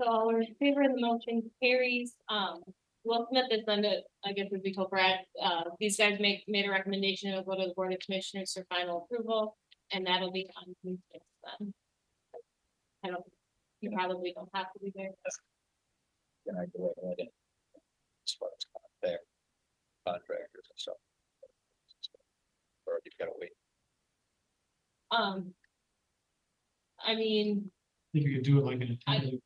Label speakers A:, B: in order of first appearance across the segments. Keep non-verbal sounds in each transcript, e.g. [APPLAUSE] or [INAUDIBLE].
A: So all in favor of the motion carries, um, Will Smith is under, I guess would be told Brad, uh, these guys make, made a recommendation, it'll go to the Board of Commissioners for final approval, and that'll be on June sixth then. I don't, you probably don't have to be there,
B: and I go ahead and. As far as not there. Contractors and stuff. Or you've gotta wait.
A: um. I mean,
C: think you could do it like in
A: I-
C: a time.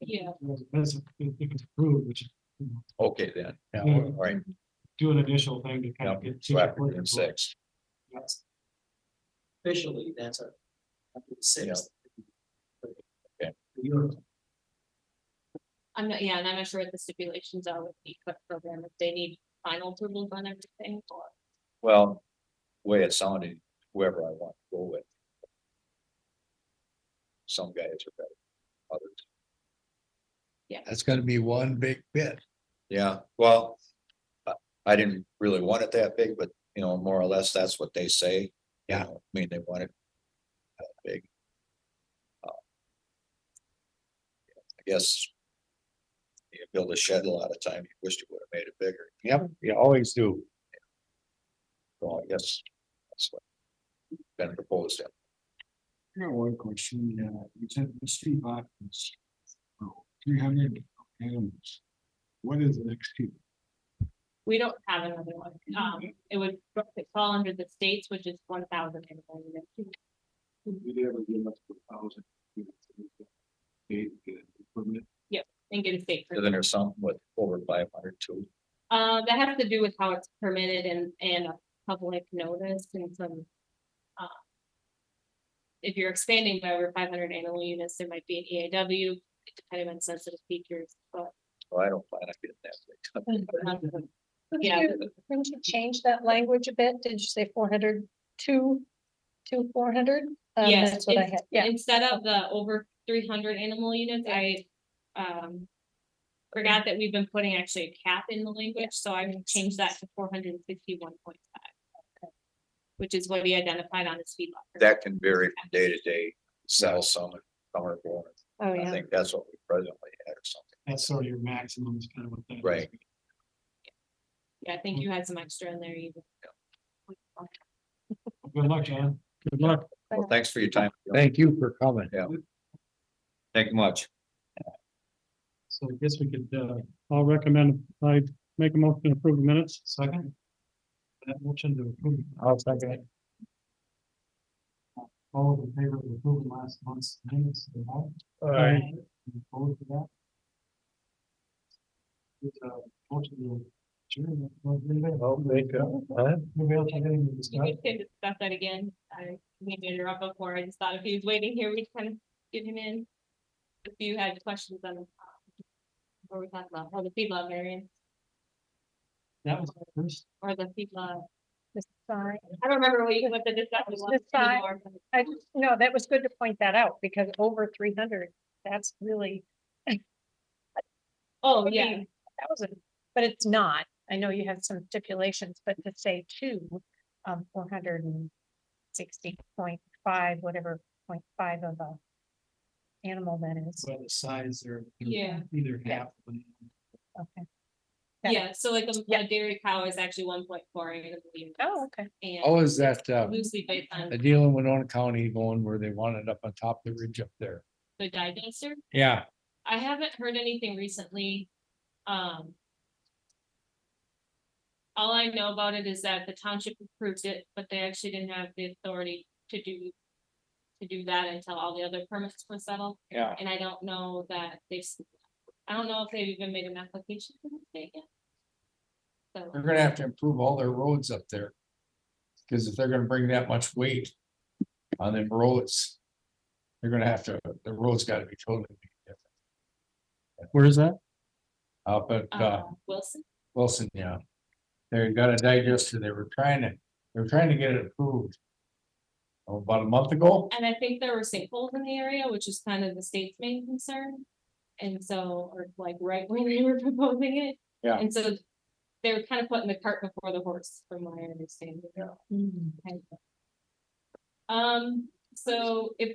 A: Yeah.
C: That's, if it's approved, which,
B: Okay, then.
C: Yeah.
B: All right.
C: do an initial thing to kind
B: Yeah,
C: of get.
B: so after June sixth,
C: Yes.
D: officially, that's a. Six.
B: Okay.
A: I'm not, yeah, and I'm not sure what the stipulations are with the equip program, if they need final approvals on everything, or.
B: well, the way it sounded, whoever I want to go with. Some guys are better, others,
E: That's gonna be one big bit.
B: yeah, well. I- I didn't really want it that big, but you know, more or less, that's what they say. you
E: Yeah.
B: know, I mean, they want it. That big. Uh, I guess. You build a shed a lot of time, you wish you would have made it bigger.
E: Yep, you always do.
B: Well, I guess that's what been proposed.
C: I got one question, uh, you said the street apartments. Three hundred animals. What is the next two?
A: We don't have another one. Um, it would fall under the states, which is one thousand.
C: Did you ever give us a thousand? Eight, permit,
A: And get a state.
B: And
A: permit.
B: then there's some with over five hundred too.
A: Uh, that has to do with how it's permitted and, and a public notice and some. uh, If you're expanding by over five hundred animal units, there might be an EAW, depending on sensitive features, but.
B: So I don't plan on getting that. big.
E: [LAUGHS]
A: um,
F: Couldn't
A: Yeah.
F: you- Couldn't you change that language a bit? Did you say four hundred two, two four hundred? Um,
A: Yes,
F: That's what I had, yeah.
A: Instead of the over three hundred animal units, I, um. Forgot that we've been putting actually a cap in the language, so I changed that to four hundred and fifty-one point five. Which is what he identified on his feedlot. permit.
B: That can vary from day to day, sell some, some are born.
F: Oh,
B: I
F: yeah.
B: think that's what we presently had or something.
C: that's sort of your maximum is kind of what that. is.
B: Right.
A: Yeah, I think you had some extra in there even.
C: Good luck, John. Good luck.
B: Well, thanks for your time.
E: Thank you for coming.
B: Thank you much.
C: So I guess we could, uh. I'll recommend, I make a motion to approve the minutes. Second. That motion to approve. I'll second it. All those in favor of approving last month's minutes. say aye.
A: Aye.
C: Any Opposed to that? It's a motion to adjourn. I'll make a. Maybe I'll take any
A: You
C: discussion.
A: [LAUGHS] could discuss that again. I made it up before. I just thought if he was waiting here, we'd kind of get him in. If you had questions on. um, What we talked about, or the feedlot variance,
C: That was my first.
A: or the feedlot,
F: Sorry.
A: I don't remember what you, what the discussion
F: It's
A: was.
F: the side. I, just- no, that was good to point that out because over three hundred, that's really,
A: Oh,
F: would
A: yeah,
F: be thousand, but it's not. I know you have some stipulations, but to say two, um, four hundred and sixty point five, whatever, point five of a animal that is,
C: By the size or.
A: Yeah.
C: Either
F: Yeah.
C: half. of an-
F: okay. Yeah.
A: yeah, so like um, a-
F: Yeah.
A: a dairy cow is actually one point four animal units.
F: Oh, okay.
E: Oh,
A: And
E: is that,
C: um,
E: uh,
A: loosely based on
E: the deal in Winona County going where they want it up on top of the ridge up there?
A: the digester,
E: Yeah,
A: I haven't heard anything recently. Um. All I know about it is that the township approved it, but they actually didn't have the authority to do. To do that until all the other permits were settled,
E: yeah.
A: and I don't know that they, s- I don't know if they've even made an application to the state yet. So.
C: Oh
E: They're gonna have to improve all their roads up there. Cause if they're gonna bring that much weight on them roads, they're gonna have to, the roads gotta be totally different.
C: Where is that?
E: Up at, uh,
A: Uh, Wilson,
E: Wilson, yeah. They got a digester, they were trying to, they were trying to get it approved. oh, About a month ago,
A: and I think there were sinkholes in the area, which is kind of the state's main concern. And so, or like right when they were [LAUGHS] proposing it.
E: Yeah.
A: And so they were kind of putting the cart before the horse, from Mm. my understanding.
F: Mm.
A: Um, so it brings